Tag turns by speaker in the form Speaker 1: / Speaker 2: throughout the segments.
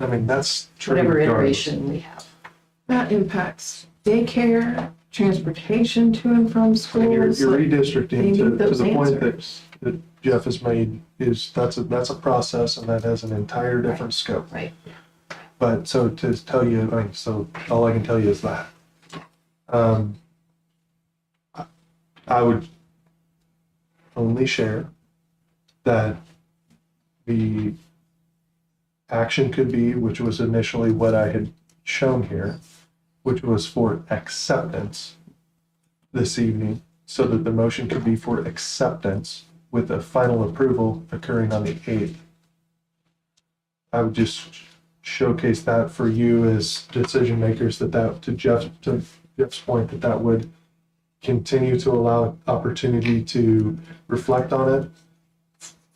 Speaker 1: mean, that's true.
Speaker 2: whatever
Speaker 1: regardless.
Speaker 2: iteration we have.
Speaker 3: That impacts daycare, transportation to and
Speaker 1: And
Speaker 3: from
Speaker 1: Your,
Speaker 3: schools.
Speaker 1: your
Speaker 3: like- they
Speaker 1: redistricting
Speaker 3: need
Speaker 1: to, to
Speaker 3: those
Speaker 1: the point that, that Jeff has made is, that's a, that's a process and that has an entire different scope.
Speaker 2: Right.
Speaker 1: But so to tell you, I mean, so all I can tell you is that. Um, I- I would only share that the action could be, which was initially what I had shown here, which was for acceptance this evening, so that the motion could be for acceptance with a final approval occurring on the eighth. I would just showcase that for you as decision makers that that to Jeff to Jeff's point that that would continue to allow opportunity to reflect on it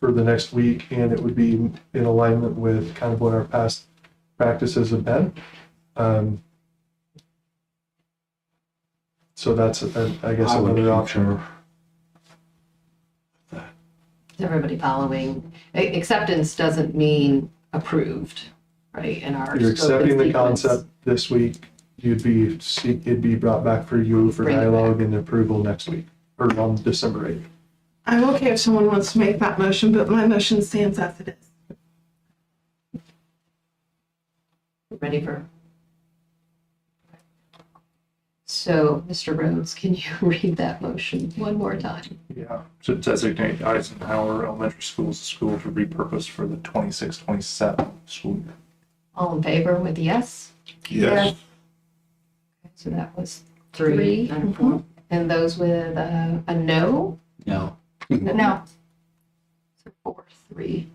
Speaker 1: for the next week and it would be in alignment with kind of what our past practices have been. Um, so that's uh, I guess
Speaker 4: I would
Speaker 1: another option.
Speaker 4: concur.
Speaker 2: Is everybody following? A- Acceptance doesn't mean approved, right? In our.
Speaker 1: You're
Speaker 2: scope and
Speaker 1: accepting the
Speaker 2: sequence.
Speaker 1: concept this week. You'd be seek- it'd be brought back for you for
Speaker 2: Bring it back.
Speaker 1: dialogue and approval next week or on December eighth.
Speaker 3: I'm okay if someone wants to make that motion, but my motion stands as it is.
Speaker 2: Ready for? So, Mr. Rhodes, can you read that motion one more time?
Speaker 4: Yeah, to designate Eisenhower Elementary School as a school to repurpose for the 26-27 school year.
Speaker 2: All in favor with yes?
Speaker 3: Yes.
Speaker 2: So that was three.
Speaker 3: four.
Speaker 2: And those with uh, a no?
Speaker 5: No.
Speaker 2: No. So Four, three.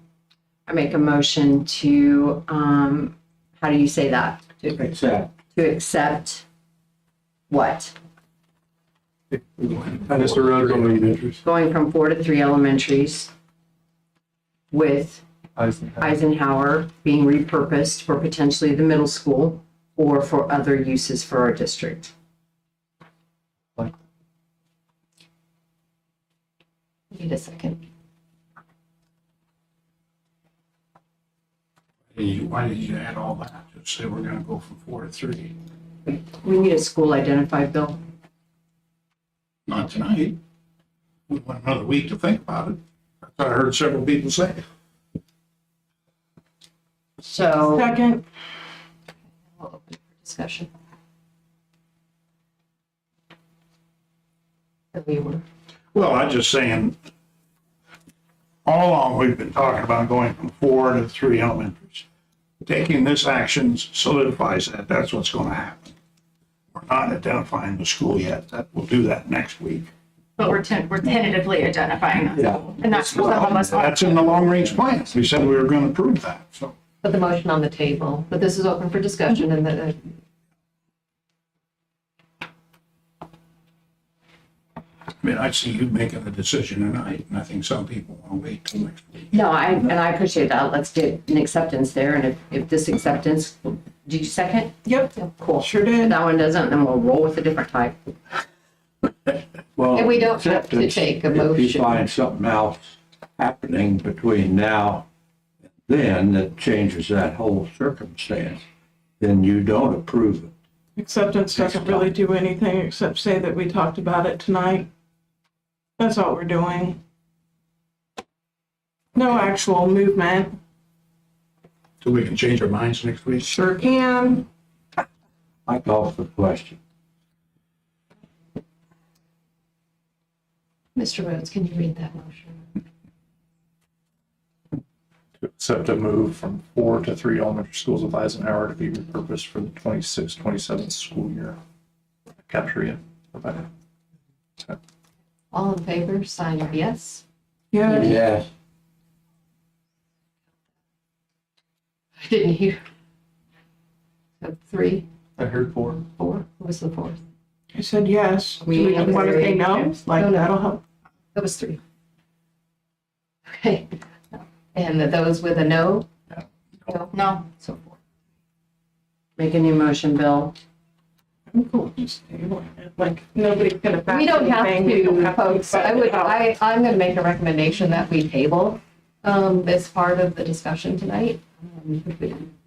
Speaker 6: I make a motion to, um, how do you say that? To
Speaker 5: Except.
Speaker 6: to accept what?
Speaker 1: Mr. Rhodes will read it.
Speaker 6: Going from four to three elementaries with
Speaker 1: Eisenhower.
Speaker 6: Eisenhower being repurposed for potentially the middle school or for other uses for our district.
Speaker 2: Need a second.
Speaker 4: Why did you add all that? Just say we're gonna go from four to three.
Speaker 6: We need a school identified bill.
Speaker 4: Not tonight. We want another week to think about it. That's what I heard several people say.
Speaker 6: So
Speaker 3: Second,
Speaker 2: We'll open for discussion. That we were
Speaker 4: Well, I'm just saying, all along, we've been talking about going from four to three elementaries. Taking this action solidifies that, that's what's gonna happen. We're not identifying the school yet, that, we'll do that next week.
Speaker 7: But we're ten, we're tentatively identifying that school. And that's what all of us are.
Speaker 4: That's in the long-range plan, we said we were gonna prove that, so.
Speaker 2: put the motion on the table, but this is open for discussion and the.
Speaker 4: I mean, I see you making the decision tonight, and I think some people wanna wait till next week.
Speaker 6: No, I, and I appreciate that. Let's get an acceptance there. And if, if this acceptance, did you second?
Speaker 3: yep,
Speaker 6: Cool.
Speaker 3: sure
Speaker 6: If
Speaker 3: did.
Speaker 6: that one doesn't, then we'll roll with a different type.
Speaker 2: And we don't have to take a
Speaker 5: If you
Speaker 2: motion.
Speaker 5: find something else happening between now and then that changes that whole circumstance, then you don't approve it.
Speaker 3: Acceptance doesn't really do anything except say that we talked about it tonight. That's all we're doing. No actual movement.
Speaker 4: So we can change our minds next week.
Speaker 3: Sure can.
Speaker 5: I call for the question.
Speaker 2: Mr. Rhodes, can you read that motion?
Speaker 8: to accept a move from four to three elementary schools of Eisenhower to be repurposed for the 26-27 school year. Capture it, provide it.
Speaker 2: All in favor, sign your yes.
Speaker 3: Yeah.
Speaker 5: Yes.
Speaker 2: I didn't hear. So Three,
Speaker 1: I heard four.
Speaker 2: four, what was the fourth?
Speaker 3: I said yes. Do
Speaker 6: We
Speaker 3: we
Speaker 6: have
Speaker 3: want to
Speaker 6: three.
Speaker 3: say no?
Speaker 2: No,
Speaker 3: Like,
Speaker 2: no.
Speaker 3: that'll help.
Speaker 2: That was three. Okay, and those with a no? No.
Speaker 7: No,
Speaker 2: So forth.
Speaker 6: Make a new motion, Bill.
Speaker 3: I'm cool just tabling it. Like, nobody's gonna back
Speaker 2: We don't have
Speaker 3: anything. We don't
Speaker 2: to,
Speaker 3: have to
Speaker 2: folks,
Speaker 3: back
Speaker 2: I
Speaker 3: it
Speaker 2: would,
Speaker 3: up.
Speaker 2: I, I'm gonna make a recommendation that we table, um, this part of the discussion tonight. Um, if we-